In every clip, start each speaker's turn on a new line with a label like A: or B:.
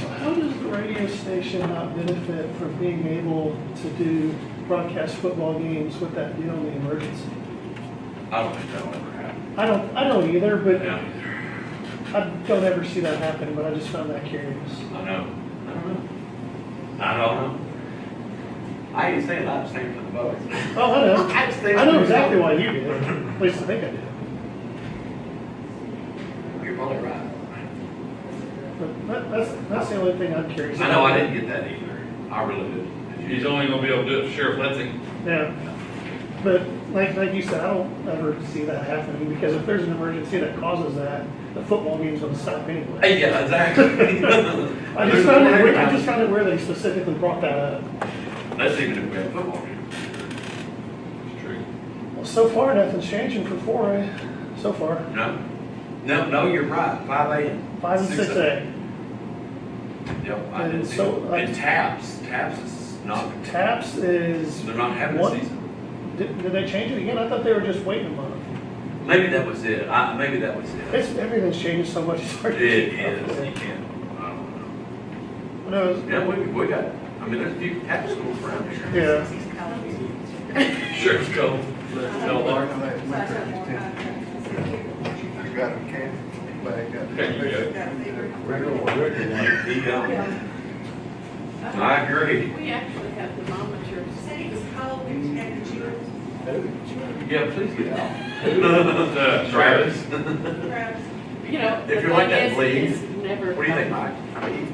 A: So how does the radio station not benefit from being able to do broadcast football games with that deal in the emergency?
B: I don't think that'll ever happen.
A: I don't, I don't either, but
B: Yeah, either.
A: I don't ever see that happen, but I just found that curious.
B: I know. I don't know. I don't know. Mm-hmm. I ain't saying I'm staying for the votes.
A: Oh, I know.
B: I'm staying.
A: I know exactly why you did, at least I think I did.
B: You're probably right.
A: But that, that's, that's the only thing I'm curious.
B: I know I didn't get that either. I really didn't. Did
C: He's
B: you?
C: only gonna be able to do it if Sheriff lets him.
A: Yeah. But like, like you said, I don't ever see that happening because if there's an emergency that causes that, the football game's gonna stop anyway.
B: Hey, yeah, exactly.
A: I just found it, weird- I just found it where they specifically brought that up.
B: That's even if we have football here.
C: It's true.
A: Well, so far, nothing's changing for four A, so far,
B: No, no, no, you're right, five AM.
A: five and six A.
B: Yep, I didn't
A: And
B: see,
A: so,
B: it.
A: like-
B: and taps, taps is not,
A: Taps is,
B: they're not having
A: What?
B: a season.
A: did, did they change it again? I thought they were just waiting a month.
B: Maybe that was it, I, maybe that was it.
A: It's, everything's changed so much. it's hard
B: It
A: to keep up
B: is,
A: with
B: you
A: it.
B: can, I don't
A: When I was-
B: know. Yeah, we, we got, I mean, there's a few tap schools around here.
A: Yeah,
B: Sheriff's go, no alarm.
D: You got a can, anybody got?
C: There you
B: He don't. I agree.
E: We actually have thermometers.
B: Yeah, please get out.
C: Uh,
B: Travis,
E: You know, the
B: If you like
E: thing
B: that
E: is,
B: bleed,
E: it's never.
B: what do you think, Mike? I mean,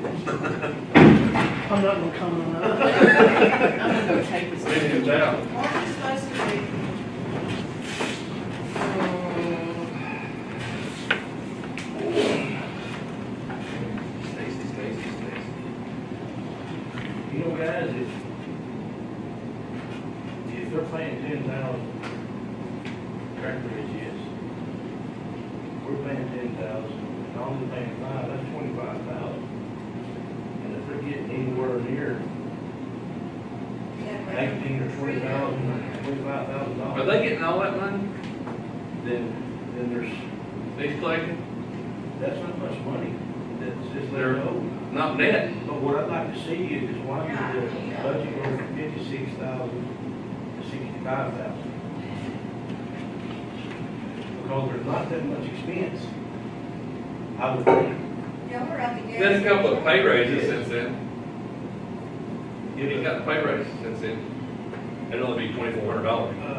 A: I'm not gonna comment on that.
E: I'm gonna go take this.
C: Maybe it's out.
B: Stacy, Stacy, Stacy.
F: You know, guys, if, if they're paying ten thousand, correctly as yes, we're paying ten thousand, and all they're paying five, that's twenty-five thousand. And if they're getting anywhere near eighteen or twenty thousand, twenty-five thousand
C: Are
F: dollars,
C: they getting all that money
F: then, then there's,
C: he's collecting?
F: that's not much money that's just there owed.
C: Not net.
F: But what I'd like to see is why did the budget go from fifty-six thousand to sixty-five thousand? Because there's not that much expense. I would think,
C: Been a couple of pay raises since then. He's got a pay raise since then. It'd only be twenty-four hundred dollars.
F: uh,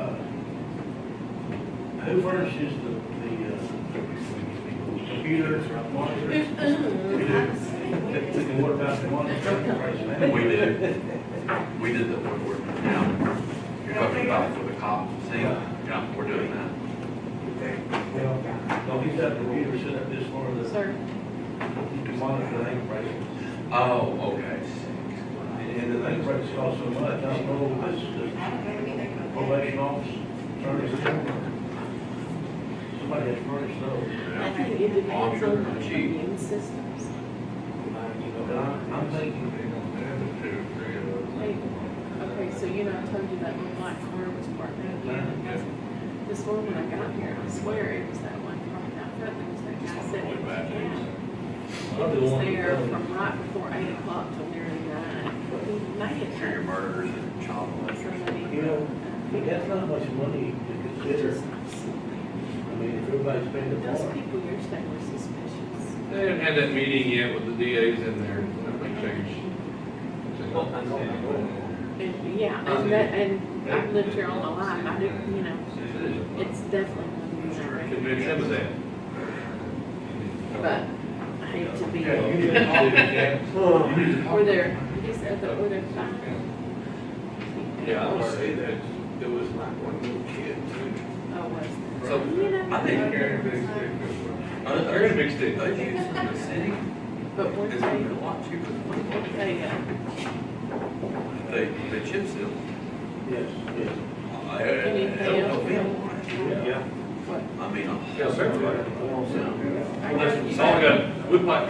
F: who furnishes the, the, uh, computer, monitor? And what about the monitor price now?
B: We did, we did the woodwork now. You're talking about for the cop thing, yeah, we're doing that.
F: Well, No, he's got the computer set up this far, the
E: Sir,
F: monitor, the price.
B: Oh, okay.
F: And the thing breaks off so much, I don't know, if it's the probation office, attorney's department. Somebody has furnished those.
E: I think it depends on the immune systems.
F: But I'm, I'm thinking,
E: Like, Okay, so you know, I told you that one light car was parked out here.
B: Mm-hmm,
E: This morning when I got here, I swear it was that one parked out front, there was that guy sitting in the cab. He was there from right before eight o'clock till nearly nine. He made it.
B: Serial murderers and child molesters.
F: you know, that's not much money to consider. I mean, if everybody's paying the
E: Those
F: bar.
E: people yesterday were suspicious.
C: They haven't had that meeting yet with the DAs in there. Nothing changed.
E: And, yeah, and that, and I've lived here all my life, I do, you know, it's definitely not in that record.
C: Convince him of that.
E: But I hate to be,
F: Yeah,
E: were
F: you didn't talk to Jack.
E: there, he's at the, were there five?
C: Yeah, I would say that.
B: It was like one little kid.
E: Oh, was there?
C: So,
E: You know,
B: I think Oh,
C: uh, they're in a big stick.
B: Those used in the city
E: But one
B: is even
E: day,
B: a lot cheaper than what
E: they, uh,
B: they, they chip seal.
F: Yes, yes.
B: I- I don't know if it'll work.
F: Yeah.
E: what,
B: I mean,
C: Yeah,
B: I'm.
C: certainly.
B: Yeah.
E: I
C: That's,
E: know you
C: that's all I got. Woodbine